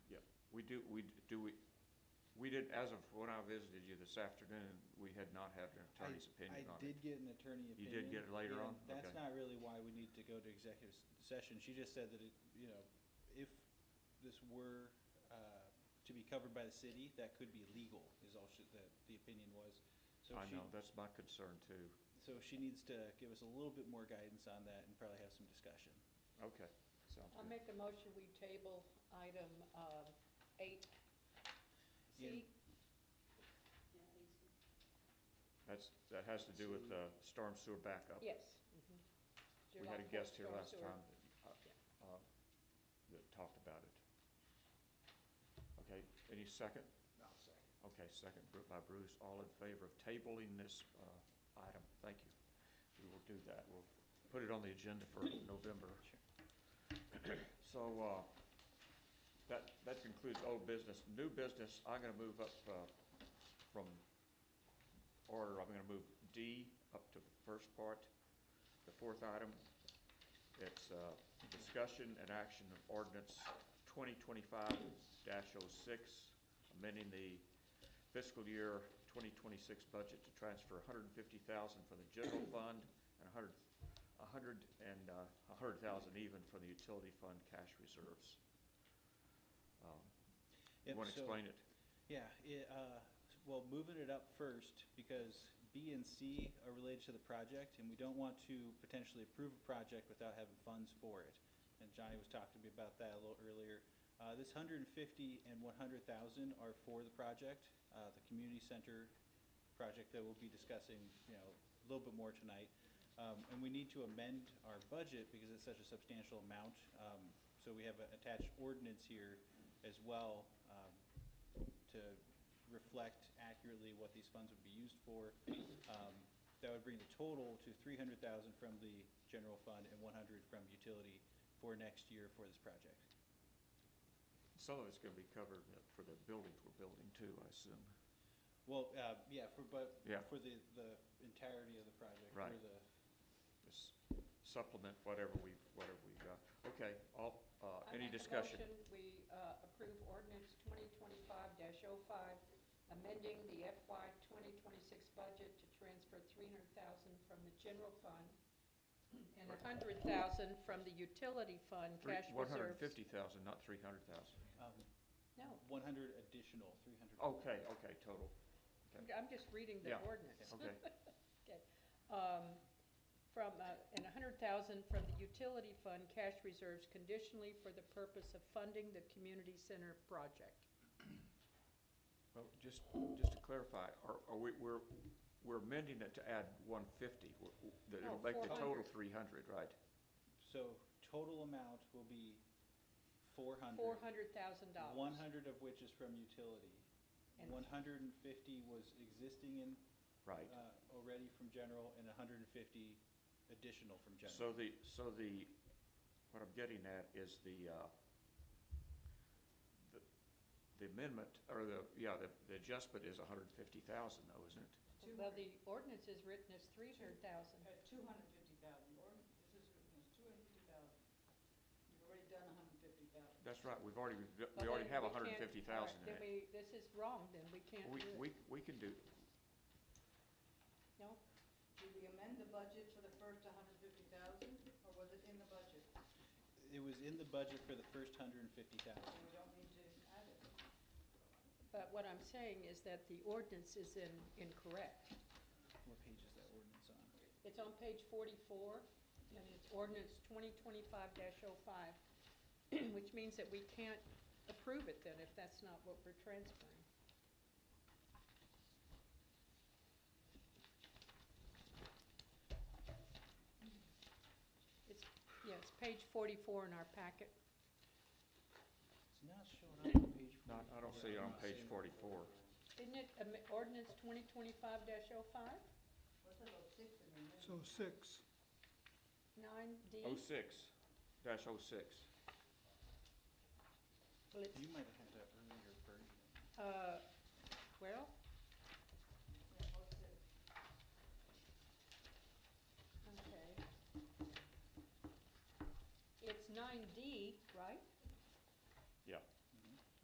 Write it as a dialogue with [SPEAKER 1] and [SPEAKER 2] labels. [SPEAKER 1] do, we, do we, we did, as of when I visited you this afternoon, we had not had an attorney's opinion on
[SPEAKER 2] I
[SPEAKER 1] it.
[SPEAKER 2] did get an attorney
[SPEAKER 1] You
[SPEAKER 2] opinion.
[SPEAKER 1] did get it later
[SPEAKER 2] yeah,
[SPEAKER 1] on?
[SPEAKER 2] That's
[SPEAKER 1] Okay.
[SPEAKER 2] not really why we need to go to executive s- session. She just said that it, you know, if this were uh, to be covered by the city, that could be legal, is all she, the, the opinion was. So
[SPEAKER 1] I
[SPEAKER 2] she-
[SPEAKER 1] know, that's my concern too.
[SPEAKER 2] So she needs to give us a little bit more guidance on that and probably have some discussion.
[SPEAKER 1] Okay, sounds
[SPEAKER 3] I'll
[SPEAKER 1] good.
[SPEAKER 3] make a motion, we table item um, eight C.
[SPEAKER 1] That's, that has to do with the storm sewer backup.
[SPEAKER 3] Yes. mhm.
[SPEAKER 1] We had a
[SPEAKER 3] July fourth
[SPEAKER 1] guest here
[SPEAKER 3] storm
[SPEAKER 1] last
[SPEAKER 3] sewer.
[SPEAKER 1] time that, uh, uh, that talked about it. Okay, any second? No, second. Okay, second Bru- by Bruce, all in favor of tabling this uh, item, thank you. We will do that, we'll put it on the agenda for November. So uh, that, that concludes old business. New business, I'm going to move up uh, from order, I'm going to move D up to the first part, the fourth item. It's uh, discussion and action of ordinance 2025-06, amending the fiscal year 2026 budget to transfer 150,000 from the general fund and 100, 100 and uh, 100,000 even from the utility fund cash reserves. Um, You
[SPEAKER 2] Yep,
[SPEAKER 1] want to
[SPEAKER 2] so-
[SPEAKER 1] explain it?
[SPEAKER 2] Yeah, it, uh, well, moving it up first, because B and C are related to the project, and we don't want to potentially approve a project without having funds for it. And Johnny was talking to me about that a little earlier. Uh, this hundred and fifty and one hundred thousand are for the project, uh, the community center project that we'll be discussing, you know, a little bit more tonight. Um, and we need to amend our budget because it's such a substantial amount. Um, so we have an attached ordinance here as well, um, to reflect accurately what these funds would be used for. Um, That would bring the total to three hundred thousand from the general fund and one hundred from utility for next year for this project.
[SPEAKER 1] Some of it's going to be covered uh, for the buildings we're building too, I assume.
[SPEAKER 2] Well, uh, yeah, for, but,
[SPEAKER 1] Yeah.
[SPEAKER 2] for the, the entirety of the project. for
[SPEAKER 1] Right.
[SPEAKER 2] the-
[SPEAKER 1] Just supplement whatever we, whatever we got. Okay, all, uh,
[SPEAKER 3] I
[SPEAKER 1] any
[SPEAKER 3] make a
[SPEAKER 1] discussion?
[SPEAKER 3] motion, We uh, approve ordinance twenty twenty-five 5 amending the FY twenty twenty-six budget to transfer three hundred thousand from the general fund and a hundred thousand from the utility fund
[SPEAKER 1] Three-
[SPEAKER 3] cash reserves.
[SPEAKER 1] 150,000, not 300,000.
[SPEAKER 2] um,
[SPEAKER 3] No,
[SPEAKER 2] One hundred additional, three hundred.
[SPEAKER 1] Okay, okay, total. Okay.
[SPEAKER 3] I'm just reading the
[SPEAKER 1] Yeah,
[SPEAKER 3] ordinance.
[SPEAKER 1] okay.
[SPEAKER 3] Okay. Um, From, uh, and 100,000 from the utility fund cash reserves conditionally for the purpose of funding the community center project.
[SPEAKER 1] Well, just, just to clarify, are, are we, we're, we're amending it to add 150, w- w- that it'll
[SPEAKER 3] No,
[SPEAKER 1] make the total
[SPEAKER 3] 400.
[SPEAKER 1] 300, right?
[SPEAKER 2] So total amount will be four hundred.
[SPEAKER 3] $400,000.
[SPEAKER 2] One hundred of which is from utility.
[SPEAKER 3] And-
[SPEAKER 2] One hundred and fifty was existing in.
[SPEAKER 1] Right.
[SPEAKER 2] uh, Already from general and hundred and fifty additional from general.
[SPEAKER 1] So the, so the, what I'm getting at is the, uh, the- the amendment, or the, yeah, the the adjustment is 150,000 though, isn't it?
[SPEAKER 3] Well, the ordinance is written as 300,000.
[SPEAKER 4] At two hundred fifty thousand, or this is written as two hundred fifty thousand. You've already done a hundred fifty thousand.
[SPEAKER 1] That's right, we've already,
[SPEAKER 3] Well,
[SPEAKER 1] we already
[SPEAKER 3] then
[SPEAKER 1] have 150,000
[SPEAKER 3] we can't-
[SPEAKER 1] in
[SPEAKER 3] all right,
[SPEAKER 1] it.
[SPEAKER 3] Then we, this is wrong, then we can't
[SPEAKER 1] We,
[SPEAKER 3] do it.
[SPEAKER 1] we, we can do,
[SPEAKER 3] No?
[SPEAKER 4] Did we amend the budget for the first hundred fifty thousand, or was it in the budget?
[SPEAKER 2] It was in the budget for the first hundred and fifty
[SPEAKER 4] So
[SPEAKER 2] thousand.
[SPEAKER 4] we don't need to add it.
[SPEAKER 3] But what I'm saying is that the ordinance is in- incorrect.
[SPEAKER 2] What page is that ordinance on?
[SPEAKER 3] It's on page 44, and it's ordinance 2025-05, which means that we can't approve it then if that's not what we're transferring. It's, yeah, it's page 44 in our packet.
[SPEAKER 2] It's not showing up on page forty-four.
[SPEAKER 1] not, I don't see it on page 44.
[SPEAKER 3] Isn't it um, ordinance 2025-05,
[SPEAKER 4] What's it about six in the amendment?
[SPEAKER 5] So six,
[SPEAKER 3] 9D?
[SPEAKER 1] Oh, 06, dash 06.
[SPEAKER 3] Well, it's,
[SPEAKER 2] You might have had that earlier version.
[SPEAKER 3] uh, Well,
[SPEAKER 4] Yeah, what's it?
[SPEAKER 3] Okay. It's nine D,